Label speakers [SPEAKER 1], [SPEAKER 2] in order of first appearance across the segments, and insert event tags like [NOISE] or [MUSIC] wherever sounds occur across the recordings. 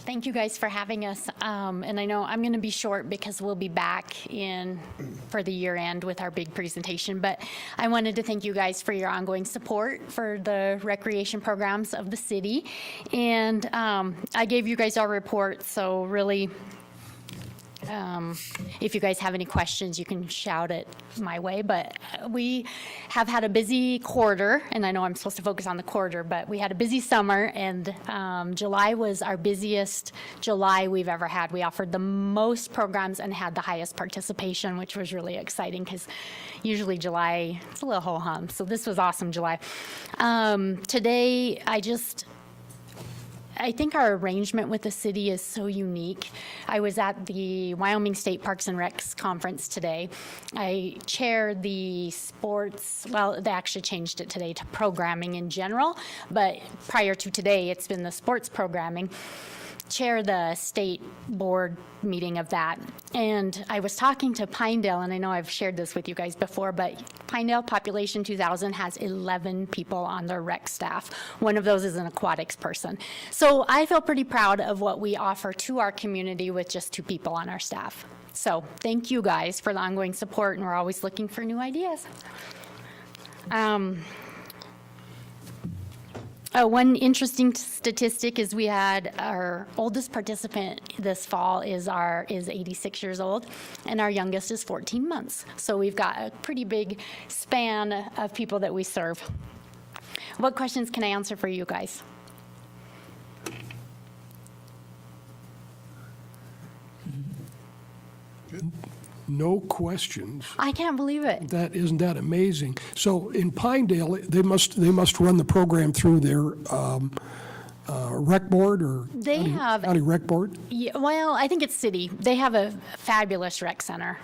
[SPEAKER 1] Thank you guys for having us. Um, And I know I'm going to be short because we'll be back in for the year end with our big presentation. But I wanted to thank you guys for your ongoing support for the recreation programs of the city. And um, I gave you guys our report, so really, um, If you guys have any questions, you can shout it my way, but uh, we have had a busy quarter, and I know I'm supposed to focus on the quarter, but we had a busy summer, and um, July was our busiest July we've ever had. We offered the most programs and had the highest participation, which was really exciting, because usually July, it's a little ho-hum, so this was awesome July. Um, Today, I just, I think our arrangement with the city is so unique. I was at the Wyoming State Parks and Recs Conference today. I chaired the sports, well, they actually changed it today to programming in general, but prior to today, it's been the sports programming chair the state board meeting of that. And I was talking to Pinedale, and I know I've shared this with you guys before, but Pinedale Population 2000 has 11 people on their rec staff. One of those is an aquatics person. So I feel pretty proud of what we offer to our community with just two people on our staff. So thank you guys for the ongoing support, and we're always looking for new ideas. Um, uh, one interesting t- statistic is we had our oldest participant this fall is our is 86 years old, and our youngest is 14 months. So we've got a pretty big span of people that we serve. What questions can I answer for you guys?
[SPEAKER 2] No questions.
[SPEAKER 1] I can't believe it.
[SPEAKER 2] That, isn't that amazing? So in Pinedale, they must, they must run the program through their um, uh, rec board or?
[SPEAKER 1] They
[SPEAKER 2] county-
[SPEAKER 1] have-
[SPEAKER 2] County rec board?
[SPEAKER 1] Yeah, well, I think it's city. They have a fabulous rec center.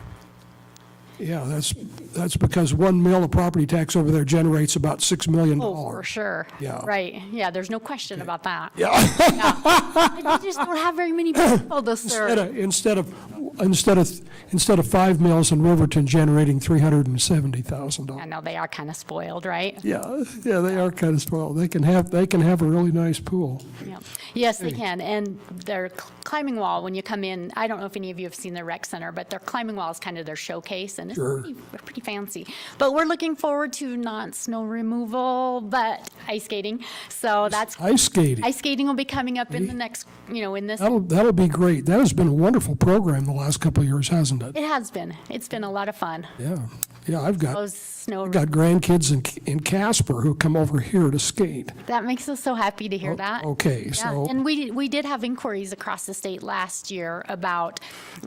[SPEAKER 2] Yeah, that's, that's because one mill of property tax over there generates about $6 million.
[SPEAKER 1] Oh, for sure.
[SPEAKER 2] Yeah.
[SPEAKER 1] Right. Yeah. There's no question about that. Yeah. [LAUGHS] They just don't have very many people [LAUGHS] to
[SPEAKER 2] [LAUGHS] Instead
[SPEAKER 1] serve.
[SPEAKER 2] of, instead of, instead of, instead of five mills in Riverton generating
[SPEAKER 1] I
[SPEAKER 2] $370,000.
[SPEAKER 1] know they are kind of spoiled, right?
[SPEAKER 2] Yeah, yeah, they are kind of spoiled. They can have, they can have a really nice pool.
[SPEAKER 1] Yeah. Yes, they can, and their cl- climbing wall, when you come in, I don't know if any of you have seen the rec center, but their climbing wall is kind of their showcase, and it's
[SPEAKER 2] Sure.
[SPEAKER 1] pretty pretty fancy. But we're looking forward to not snow removal, but ice skating, so that's,
[SPEAKER 2] Ice skating.
[SPEAKER 1] ice skating will be coming up in the next, you know, in this,
[SPEAKER 2] That'll, that'll be great. That has been a wonderful program the last couple of years, hasn't it?
[SPEAKER 1] it has been, it's been a lot of fun,
[SPEAKER 2] Yeah, yeah, I've got,
[SPEAKER 1] those snow,
[SPEAKER 2] got grandkids in, in Casper who come over here to skate.
[SPEAKER 1] that makes us so happy to hear that.
[SPEAKER 2] Okay,
[SPEAKER 1] Yeah,
[SPEAKER 2] so,
[SPEAKER 1] and we, we did have inquiries across the state last year about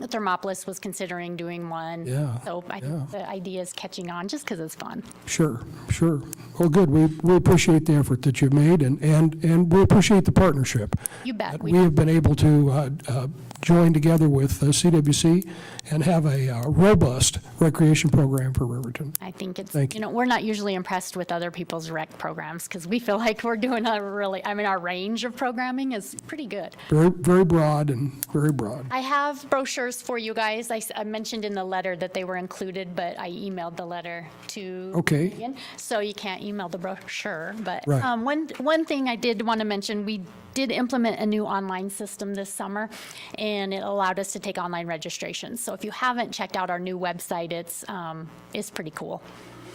[SPEAKER 1] Thermopolis was considering doing one.
[SPEAKER 2] Yeah,
[SPEAKER 1] So I think the idea is catching on just because it's fun.
[SPEAKER 2] sure, sure. Well, good, we, we appreciate the effort that you've made and, and, and we appreciate the partnership.
[SPEAKER 1] You bet.
[SPEAKER 2] that
[SPEAKER 1] We-
[SPEAKER 2] We have been able to uh, uh, join together with uh, CWC and have a uh, robust recreation program for Riverton.
[SPEAKER 1] I think it's,
[SPEAKER 2] Thank
[SPEAKER 1] you know, we're not usually impressed with other people's rec programs because we feel like we're doing a really, I mean, our range of programming is pretty good.
[SPEAKER 2] Very, very broad and very broad.
[SPEAKER 1] I have brochures for you guys. I, s- I mentioned in the letter that they were included, but I emailed the letter to.
[SPEAKER 2] Okay.
[SPEAKER 1] Megan, So you can't email the brochure, but.
[SPEAKER 2] Right.
[SPEAKER 1] um, One, one thing I did want to mention, we did implement a new online system this summer, and it allowed us to take online registrations. So if you haven't checked out our new website, it's, um, it's pretty cool.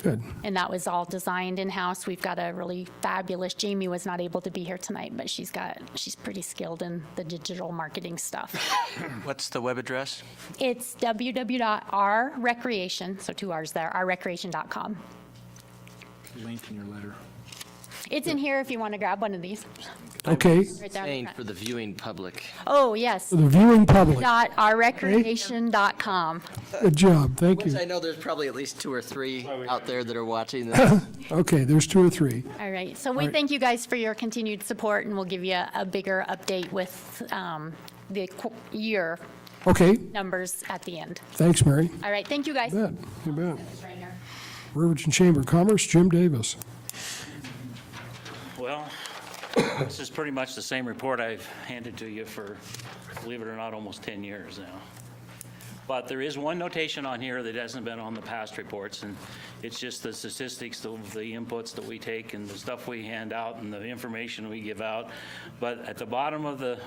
[SPEAKER 2] Good,
[SPEAKER 1] And that was all designed in-house. We've got a really fabulous, Jamie was not able to be here tonight, but she's got, she's pretty skilled in the digital marketing stuff.
[SPEAKER 3] What's the web address?
[SPEAKER 1] It's www.rrecreation, so two R's there, rrecreation.com.
[SPEAKER 4] link in your letter.
[SPEAKER 1] It's in here if you want to grab one of these.
[SPEAKER 2] okay.
[SPEAKER 1] Right there.
[SPEAKER 3] Saying for the viewing public.
[SPEAKER 1] Oh, yes,
[SPEAKER 2] The viewing public,
[SPEAKER 1] dot rrecreation.com.
[SPEAKER 2] good job, thank you.
[SPEAKER 3] I know there's probably at least two or three out there that are watching this.
[SPEAKER 2] Okay, there's two or three.
[SPEAKER 1] All right, so we thank you guys for your continued support, and we'll give you a bigger update with um, the qu- year
[SPEAKER 2] Okay,
[SPEAKER 1] numbers at the end.
[SPEAKER 2] thanks, Mary.
[SPEAKER 1] All right, thank you, guys.
[SPEAKER 2] You bet, you bet.
[SPEAKER 1] Right here.
[SPEAKER 2] Riverton Chamber of Commerce, Jim Davis.
[SPEAKER 5] Well, this is pretty much the same report I've handed to you for, believe it or not, almost 10 years now. But there is one notation on here that hasn't been on the past reports, and it's just the statistics, of the inputs that we take, and the stuff we hand out, and the information we give out. But at the bottom of the